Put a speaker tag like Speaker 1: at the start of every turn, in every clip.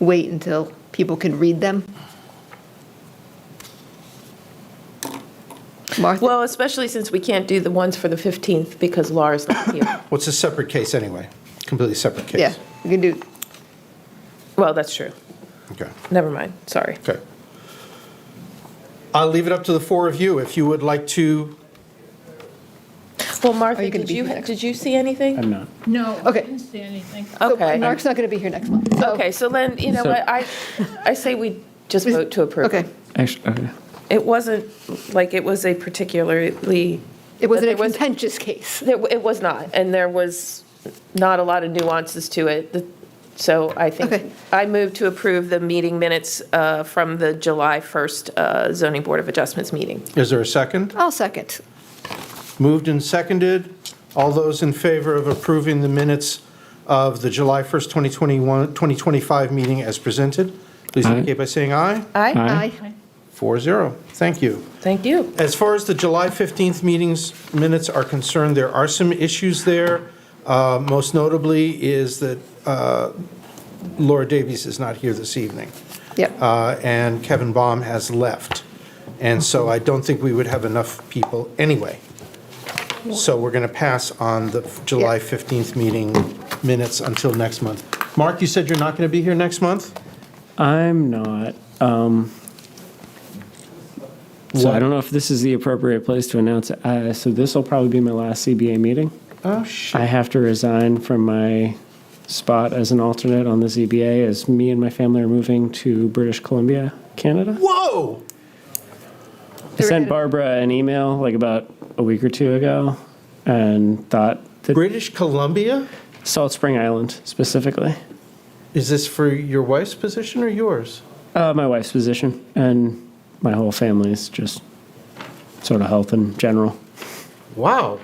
Speaker 1: wait until people could read them? Martha,
Speaker 2: Well, especially since we can't do the ones for the 15th because Laura's not here.
Speaker 3: Well, it's a separate case anyway, completely separate case.
Speaker 1: yeah, we can do,
Speaker 2: Well, that's true.
Speaker 3: Okay,
Speaker 2: Never mind, sorry.
Speaker 3: okay. I'll leave it up to the four of you if you would like to,
Speaker 2: Well, Martha,
Speaker 1: you gonna
Speaker 2: did
Speaker 1: be
Speaker 2: you,
Speaker 1: here next-
Speaker 2: did you see anything?
Speaker 4: I'm not.
Speaker 5: No, I
Speaker 1: Okay.
Speaker 5: didn't see anything.
Speaker 1: so
Speaker 2: Okay.
Speaker 1: Mark's not going to be here next month. so-
Speaker 2: Okay, so then, you know
Speaker 4: So-
Speaker 2: what, I, I say we just vote to approve.
Speaker 1: Okay,
Speaker 4: Actually, okay.
Speaker 2: It wasn't, like, it was a particularly,
Speaker 1: it wasn't a
Speaker 2: But there was-
Speaker 1: contentious case.
Speaker 2: there- it was not, and there was not a lot of nuances to it. The- So I
Speaker 1: Okay.
Speaker 2: think, I move to approve the meeting minutes uh, from the July 1st uh, zoning board of adjustments meeting.
Speaker 3: is there a second?
Speaker 1: I'll second.
Speaker 3: Moved and seconded. All those in favor of approving the minutes of the July 1st, 2021, 2025 meeting as presented, please
Speaker 4: Aye.
Speaker 3: indicate by saying aye.
Speaker 2: Aye,
Speaker 4: Aye.
Speaker 1: Aye.
Speaker 3: Four zero. Thank you.
Speaker 2: thank you.
Speaker 3: As far as the July 15th meetings minutes are concerned, there are some issues there. Uh, Most notably is that uh, Laura Davies is not here this evening.
Speaker 1: Yep.
Speaker 3: Uh, And Kevin Baum has left. And so I don't think we would have enough people anyway. So we're going to pass on the July 15th meeting minutes until next month. Mark, you said you're not going to be here next month?
Speaker 4: I'm not. Um, so I don't know if this is the appropriate place to announce it. Uh, so this will probably be my last CBA meeting.
Speaker 3: Oh, shit.
Speaker 4: I have to resign from my spot as an alternate on the ZBA as me and my family are moving to British Columbia, Canada.
Speaker 3: Whoa!
Speaker 4: I sent Barbara an email like about a week or two ago and thought that
Speaker 3: British Columbia?
Speaker 4: Salt Spring Island specifically,
Speaker 3: Is this for your wife's position or yours?
Speaker 4: uh, my wife's position and my whole family's just sort of health in general.
Speaker 3: Wow.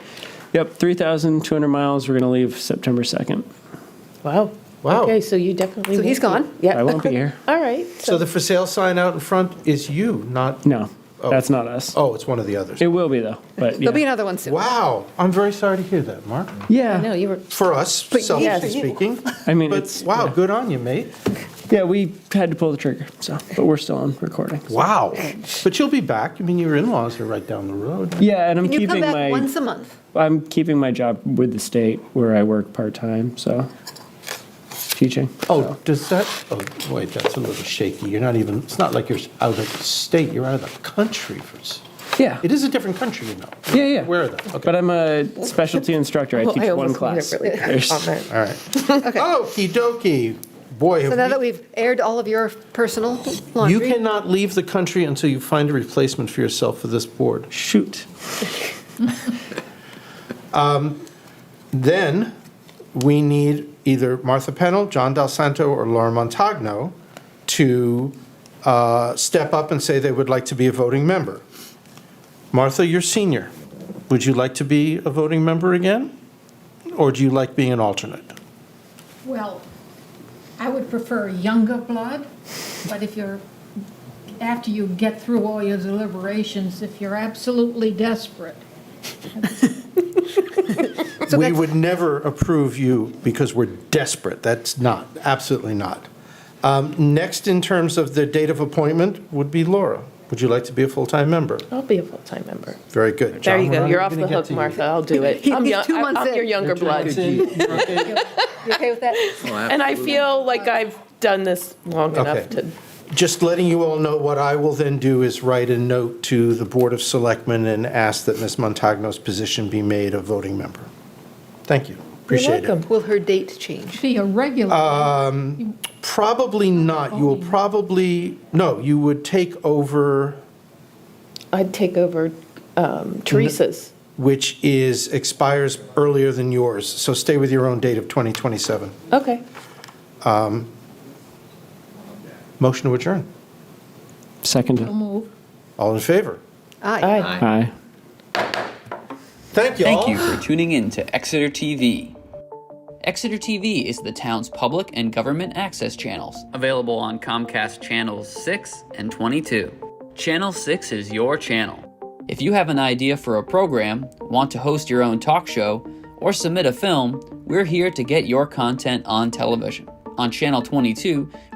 Speaker 4: Yep, 3,200 miles. We're going to leave September 2nd.
Speaker 2: Wow.
Speaker 3: Wow.
Speaker 2: Okay, Oh. so you definitely.
Speaker 1: So he's
Speaker 2: won't
Speaker 1: gone?
Speaker 2: be-
Speaker 4: I
Speaker 2: Yeah,
Speaker 4: won't be here.
Speaker 2: all right.
Speaker 3: So the for sale sign out in front is you, not,
Speaker 4: No,
Speaker 3: Oh.
Speaker 4: that's not us.
Speaker 3: oh, it's one of the others.
Speaker 4: It will be, though. But yeah.
Speaker 1: There'll be another one soon.
Speaker 3: Wow. I'm very sorry to hear that, Mark.
Speaker 4: yeah.
Speaker 2: No, you were,
Speaker 3: For us,
Speaker 1: But
Speaker 3: selfishly
Speaker 1: yes.
Speaker 3: speaking.
Speaker 4: I mean,
Speaker 3: But
Speaker 4: it's-
Speaker 3: wow,
Speaker 4: yeah.
Speaker 3: good on you, mate.
Speaker 4: Yeah, we had to pull the trigger. So, but we're still on recording.
Speaker 3: Wow. But you'll be back. I mean, your in-laws are right down the road.
Speaker 4: Yeah, and I'm
Speaker 1: Can you come
Speaker 4: keeping
Speaker 1: back
Speaker 4: my
Speaker 1: once a month?
Speaker 4: I'm keeping my job with the state where I work part time. So, teaching.
Speaker 3: Oh, does that, oh, wait, that's a little shaky. You're not even, it's not like you're out of the state, you're out of the country. for s-
Speaker 4: Yeah.
Speaker 3: It is a different country, you know.
Speaker 4: Yeah, yeah.
Speaker 3: Aware of that. Okay.
Speaker 4: But I'm a specialty instructor. I
Speaker 1: Oh,
Speaker 2: Well,
Speaker 4: teach
Speaker 2: I
Speaker 4: one
Speaker 2: almost made
Speaker 4: class.
Speaker 2: a really bad
Speaker 4: There's-
Speaker 2: comment.
Speaker 3: All right. Okey dokey. Boy,
Speaker 1: So now that
Speaker 3: have we-
Speaker 1: we've aired all of your personal
Speaker 3: you
Speaker 1: laundry.
Speaker 3: cannot leave the country until you find a replacement for yourself for this board.
Speaker 4: Shoot.
Speaker 3: Then we need either Martha Pennell, John Del Santo, or Laura Montagno to uh, step up and say they would like to be a voting member. Martha, you're senior. Would you like to be a voting member again? Or do you like being an alternate?
Speaker 5: Well, I would prefer younger blood, but if you're, after you get through all your deliberations, if you're absolutely desperate,
Speaker 3: We would never approve you because we're desperate. That's not, absolutely not. Um, Next, in terms of the date of appointment, would be Laura. Would you like to be a full-time member?
Speaker 2: I'll be a full-time member.
Speaker 3: Very good.
Speaker 2: There
Speaker 3: John,
Speaker 2: you
Speaker 3: we're
Speaker 2: go,
Speaker 3: not
Speaker 2: you're
Speaker 3: even
Speaker 2: off
Speaker 3: gonna
Speaker 2: the
Speaker 3: get
Speaker 2: hook,
Speaker 3: to you.
Speaker 2: Martha, I'll do it.
Speaker 1: He-
Speaker 2: I'm
Speaker 1: he's
Speaker 2: young-
Speaker 1: two
Speaker 2: I'm-
Speaker 1: months
Speaker 2: I'm your
Speaker 1: in.
Speaker 2: younger blood.
Speaker 3: You're okay?
Speaker 1: You okay with that?
Speaker 2: And I feel like I've done this long enough
Speaker 3: Okay.
Speaker 2: to,
Speaker 3: Just letting you all know, what I will then do is write a note to the Board of Selectmen and ask that Ms. Montagno's position be made a voting member. Thank you. Appreciate it.
Speaker 2: welcome.
Speaker 1: Will her date change?
Speaker 5: be a regular.
Speaker 3: Probably not. You will probably, no, you would take over,
Speaker 2: I'd take over um, Teresa's.
Speaker 3: which is, expires earlier than yours. So stay with your own date of 2027.
Speaker 2: Okay,
Speaker 3: Motion to adjourn.
Speaker 5: So
Speaker 4: Second.
Speaker 5: move.
Speaker 3: All in favor?
Speaker 1: Aye.
Speaker 2: aye.
Speaker 4: Aye.
Speaker 3: Thank you all.
Speaker 6: Thank you for tuning in to Exeter TV. Exeter TV is the town's public and government access channels, available on Comcast Channels 6 and 22. Channel 6 is your channel. If you have an idea for a program, want to host your own talk show, or submit a film, we're here to get your content on television. On Channel 22,